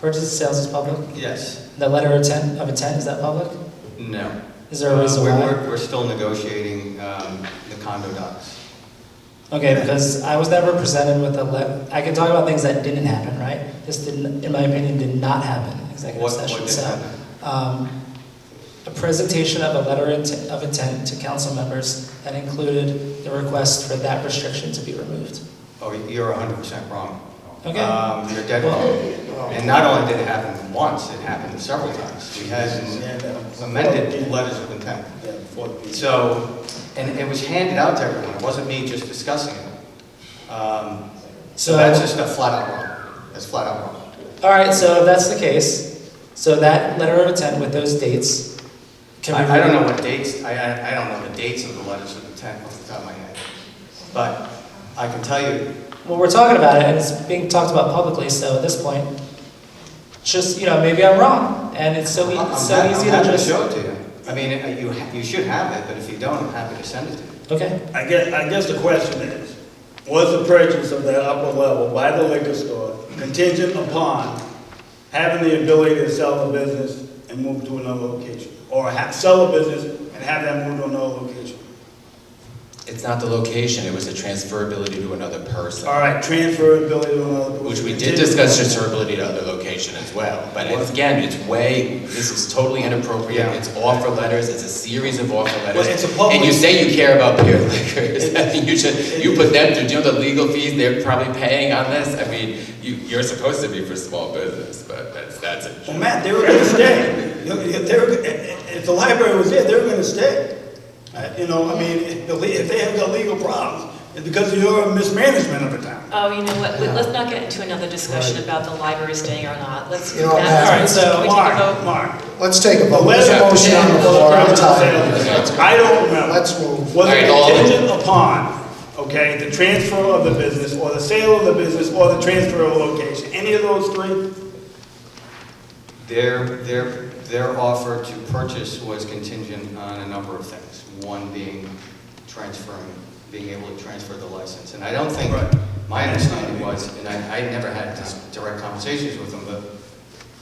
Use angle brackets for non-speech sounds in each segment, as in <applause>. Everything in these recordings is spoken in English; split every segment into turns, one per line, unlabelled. Purchase and sales is public.
Yes.
The letter of intent, of intent, is that public?
No.
Is there a reason
Uh, we're-
why?
We're, we're still negotiating um, the condo docs.
Okay, because I was never presented with a le, I can talk about things that didn't happen, right? This didn't, in my opinion, did not happen, in executive
What, what
session,
did
so.
happen?
um, A presentation of a letter int- of intent to council members that included the request for that restriction to be removed.
Oh, you're hundred percent wrong.
Okay.
Um, You're dead wrong. And not only did it happen once, it happened several times. We had amended letters of intent. So, and it was handed out to everyone, it wasn't me just discussing it. Um, So
So-
that's just a flat out wrong, that's flat out wrong.
All right, so if that's the case, so that letter of intent with those dates can be.
I I don't know
removed.
what dates, I- I, I don't know the dates of the letters of intent off the top of my head. But I can tell you,
Well, we're talking about it, and it's being talked about publicly, so at this point, just, you know, maybe I'm wrong, and it's so,
I'm
ea-
I'm
so
happy I'm
easy to
happy to
just.
show it to you. I mean, it- you, ha- you should have it, but if you don't, I'm happy to send it to you.
Okay,
I guess, I guess the question is, was the purchase of that upper level by the liquor store contingent upon having the ability to sell the business and move to another location? Or ha sell the business and have that move to another location?
It's not the location, it was the transferability to another person,
All right, transferability to another.
which we did discuss transferability to other location as well. But it's- again, it's way, this is totally inappropriate,
Yeah.
it's offer letters, it's a series of offer letters.
Well, it's a public-
And you say you care about beer liquors, <laughs> I think you should, you put them through, do you know the legal fees they're probably paying on this? I mean, you, you're supposed to be for small business, but that's, that's a
Well, Matt, they were gonna stay. You- you- They were, if if the library was there, they were gonna stay. Uh, You know, I mean, if the le- if they have got legal problems, it's because of your mismanagement of the town.
Oh, you know what, let's not get into another discussion about the library staying or not, let's.
You know what,
that-
Matt?
All right, so
Can we take a
Mark,
vote?
Mark,
Let's take a
the
vote. There's
letter
a
of
motion on the floor. I'm tired.
I don't remember.
Let's move.
Was
All
it
right, all of it.
contingent upon, okay, the transfer of the business, or the sale of the business, or the transfer of location? Any of those three?
Their, their, their offer to purchase was contingent on a number of things. One being transferring, being able to transfer the license. And I don't think,
Right.
my understanding was, and I, I never had dis- direct conversations with them, but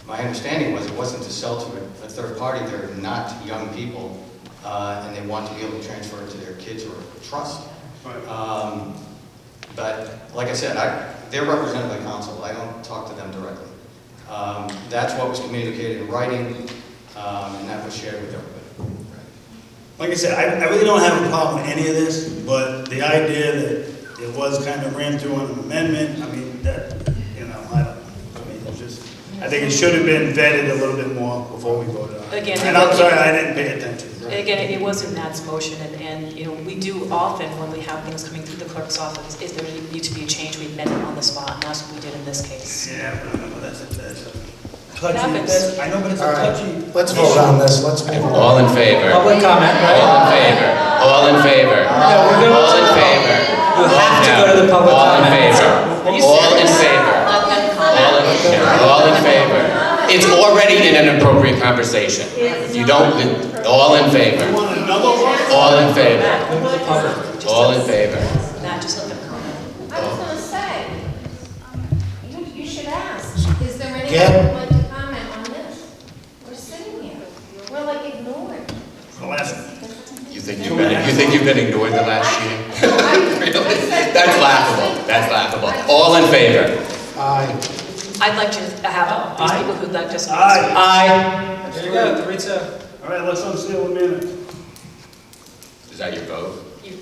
my understanding was it wasn't to sell to a a third party, they're not young people, uh, and they want to be able to transfer it to their kids or trust.
Right.
Um, But, like I said, I, they're represented by council, I don't talk to them directly. Um, That's what was communicated in writing, um, and that was shared with everybody.
Like I said, I, I really don't have a problem with any of this, but the idea that it was kind of ran through on an amendment, I mean, that, you know, I don't, I mean, it's just, I think it should have been vetted a little bit more before we voted on it.
Again,
And I'm sorry, I didn't pay attention.
Again, it wasn't Matt's motion, and, and, you know, we do often, when we have things coming through the clerk's office, if there needs to be a change, we amend it on the spot, and that's what we did in this case.
Yeah, but I know that's a, that's a
It
touchy,
happens.
that's, I know, but it's a
All right.
touchy.
Let's vote on this, let's move on.
All in favor? All
public
in
comment, right?
favor? All in favor?
Uh,
No, we're gonna-
All in favor?
You have to go to the public
All in
comment.
favor? All in favor? All in, yeah, all in favor. It's already in an appropriate conversation. You don't, all in
You
favor?
want another one?
All in favor?
Matt,
The public.
just
All
let-
in favor?
Matt, just let them comment.
I was gonna say, you, you should ask, is there anyone
Get-
who would like to comment on this? We're sitting here, we're like ignored.
The last one.
You think you've been, you think you've been ignored the last year? <laughs> Really? That's laughable, that's laughable. All in favor?
Aye.
I'd like to have these
Aye.
people who'd like to speak.
Aye.
Aye. There you go, three two.
All right, let's unseal the minutes.
Is that your vote?
You-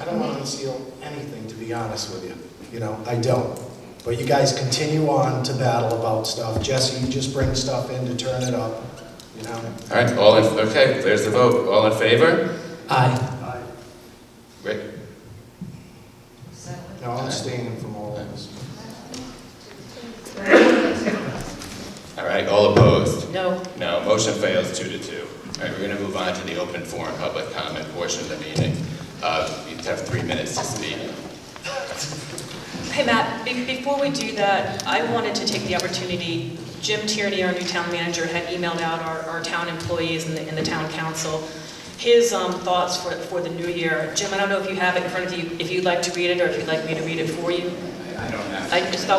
I don't want to conceal anything, to be honest with you. You know, I don't. But you guys continue on to battle about stuff. Jesse, you just bring stuff in to turn it up, you know?
All right, all in, okay, there's the vote. All in favor?
Aye.
Rick?
No, I'm staying from all of this.
All right, all opposed?
No,
No, motion fails two to two. All right, we're going to move on to the open forum public comment portion of the meeting. Uh, You have three minutes to speak.
Hey, Matt, be- before we do that, I wanted to take the opportunity, Jim Tierney, our new town manager, had emailed out our, our town employees and the, and the town council, his um, thoughts for, for the new year. Jim, I don't know if you have it in front of you, if you'd like to read it, or if you'd like me to read it for you.
I don't have.
I just thought